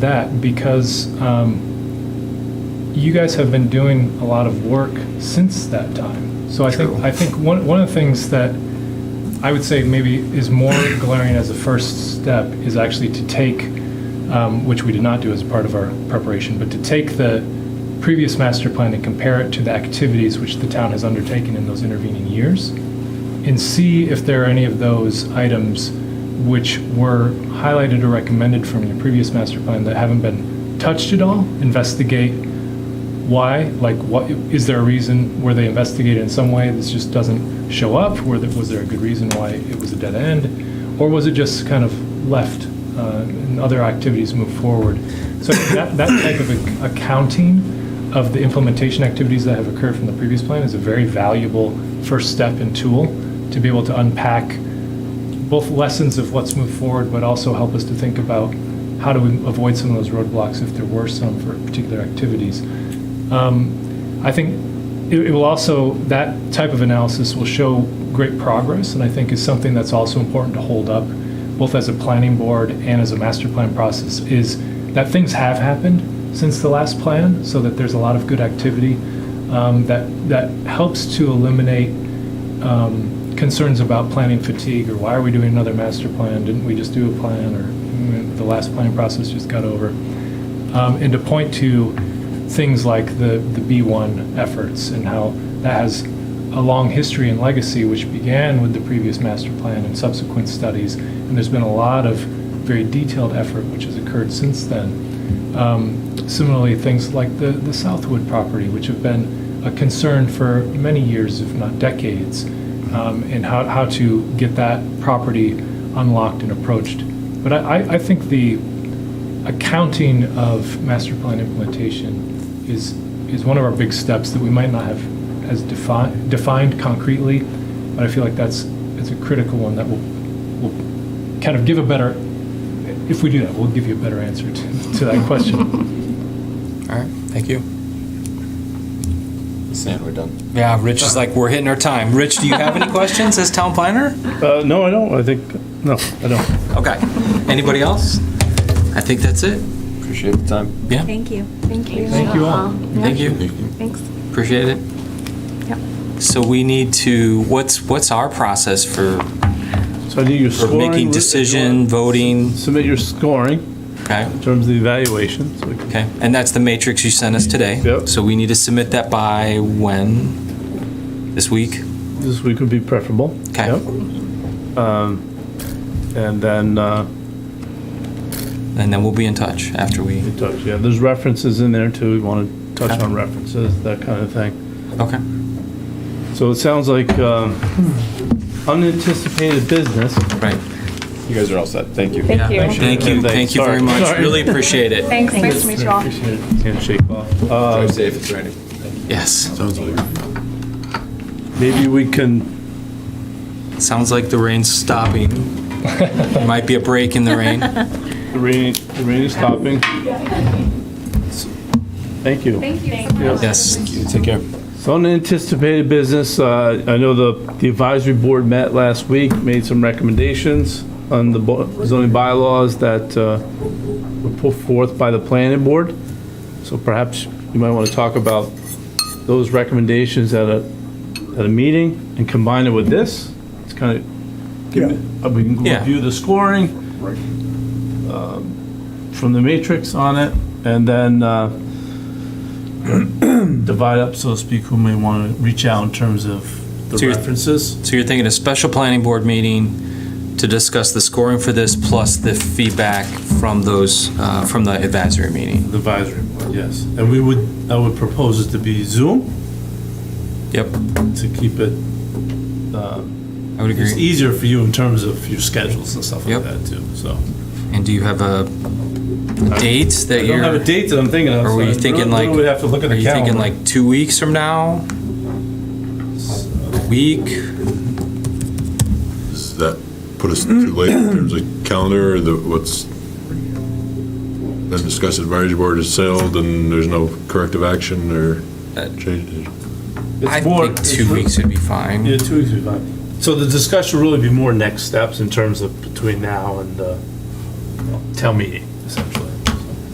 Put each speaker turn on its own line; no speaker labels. that because um, you guys have been doing a lot of work since that time. So I think,
True.
I think one, one of the things that I would say maybe is more glaring as a first step is actually to take, um, which we did not do as a part of our preparation, but to take the previous master plan and compare it to the activities which the town has undertaken in those intervening years and see if there are any of those items which were highlighted or recommended from your previous master plan that haven't been touched at all. Investigate why, like what, is there a reason, were they investigated in some way, this just doesn't show up? Were there, was there a good reason why it was a dead end? Or was it just kind of left uh, and other activities moved forward? So that, that type of ac- accounting of the implementation activities that have occurred from the previous plan is a very valuable first step and tool to be able to unpack both lessons of what's moved forward, but also help us to think about how do we avoid some of those roadblocks if there were some for particular activities. Um, I think it, it will also, that type of analysis will show great progress, and I think is something that's also important to hold up, both as a planning board and as a master plan process, is that things have happened since the last plan, so that there's a lot of good activity um, that, that helps to eliminate um, concerns about planning fatigue, or why are we doing another master plan? Didn't we just do a plan, or mm, the last planning process just got over? Um, And to point to things like the, the B1 efforts and how that has a long history and legacy, which began with the previous master plan and subsequent studies. And there's been a lot of very detailed effort which has occurred since then. Um, Similarly, things like the, the Southwood property, which have been a concern for many years, if not decades, um, and how, how to get that property unlocked and approached. But I, I- I think the, accounting of master plan implementation is, is one of our big steps that we might not have as defined, defined concretely, but I feel like that's, it's a critical one that will, will kind of give a better, if we do that, we'll give you a better answer to, to that question.
All right, thank you.
And we're done.
Yeah, Rich is like, we're hitting our time. Rich, do you have any questions as town planner?
Uh, no, I don't, I think, no, I don't.
Okay. Anybody else? I think that's it.
Appreciate the time.
Yeah,
Thank you. Thank you.
Thank you all.
thank you.
Thanks.
Appreciate it.
Yep.
So we need to, what's, what's our process for,
So I need your
for
scoring.
making decision, voting?
Submit your scoring
Okay,
in terms of the evaluation, so we can-
okay. And that's the matrix you sent us today.
Yep.
So we need to submit that by when? This week?
this week would be preferable.
Okay.
Yep. Um, And then, uh,
And then we'll be in touch after we,
we touch- yeah, there's references in there too, we want to touch on references, that kind of thing.
okay.
So it sounds like um, unanticipated business.
Right.
You guys are all set. Thank you.
Yeah.
Thank you.
Thank you, thank you very much.
Sorry.
Really appreciate it.
Thanks, nice to meet you all.
Handshake off. Uh,
Drive safe. It's raining.
Yes.
Maybe we can,
Sounds like the rain's stopping. Might be a break in the rain.
the rain, the rain is stopping. Thank you.
Yes.
Take care.
So unanticipated business, uh, I know the, the advisory board met last week, made some recommendations on the bo- zoning bylaws that uh, were put forth by the planning board. So perhaps you might want to talk about those recommendations at a, at a meeting and combine it with this. It's kind of, we can
Yeah.
review the scoring um, from the matrix on it, and then uh, divide up, so to speak, who may want to reach out in terms of
So
the
you're-
references.
So you're thinking a special planning board meeting to discuss the scoring for this plus the feedback from those, uh, from the advisory meeting?
The advisory board, yes. And we would, I would propose it to be Zoom
Yep,
to keep it, uh,
I would
it's e-
agree.
easier for you in terms of your schedules and stuff like
Yep.
that too, so.
And do you have a date that
I don't
you're?
have a date that I'm thinking of.
Are
so
we
I
thinking
really-
like?
really would have to look at the
Are you thinking
calendar.
like two weeks from now? A Week?
Does that put us too late in terms of calendar, or the, what's, then discuss advisory board is sailed and there's no corrective action or change?
Uh,
It's
I
more-
think
it's
two
re-
weeks would be fine.
Yeah, two weeks would be fine. So the discussion will really be more next steps in terms of between now and, uh, town meeting, essentially.